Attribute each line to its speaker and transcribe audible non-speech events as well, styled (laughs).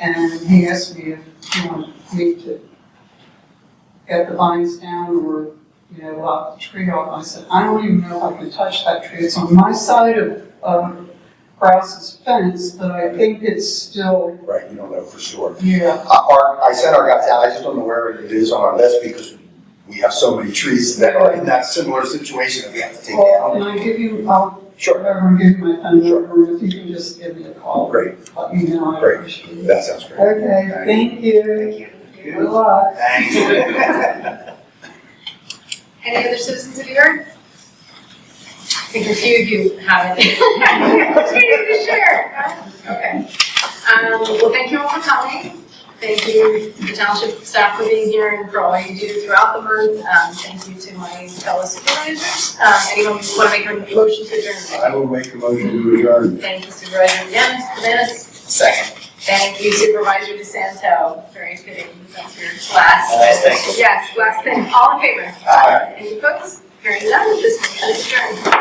Speaker 1: And he asked me if you want me to get the vines down or, you know, lop the tree off. I said, I don't even know if I can touch that tree. It's on my side of, um, Grouse's fence, but I think it's still,
Speaker 2: Right, you don't know for sure.
Speaker 1: yeah,
Speaker 2: Uh, Our, I sent our guys out, I just don't know where it is on our list because we have so many trees that are in that similar situation that we have to take
Speaker 1: Well,
Speaker 2: down.
Speaker 1: can I give you, I'll,
Speaker 2: Sure,
Speaker 1: I'll give you my phone
Speaker 2: Sure.
Speaker 1: number, and if you can just give me a call.
Speaker 2: great,
Speaker 1: Let me know, I
Speaker 2: Great.
Speaker 1: appreciate it.
Speaker 2: that sounds great.
Speaker 1: Okay, thank you. Good luck.
Speaker 2: Thanks.
Speaker 3: Any other citizens of York? I think a few of you have it. (laughs) Continue to share. Okay. Um, Well, thank you all for coming. Thank you, to the township staff for being here and for all you do throughout the month. Um, Thank you to my fellow supervisors. Um, Anyone want to make a motion to adjourn?
Speaker 2: I will make a motion to adjourn.
Speaker 3: Thank you Supervisor Yanis, Yanis.
Speaker 2: Second.
Speaker 3: Thank you Supervisor DeSanto. Very fitting, that's your last.
Speaker 2: Nice, Uh, thank you.
Speaker 3: Yes, last thing. All in favor?
Speaker 2: Aye.
Speaker 3: Any opposed? Hearing none, this motion is adjourned.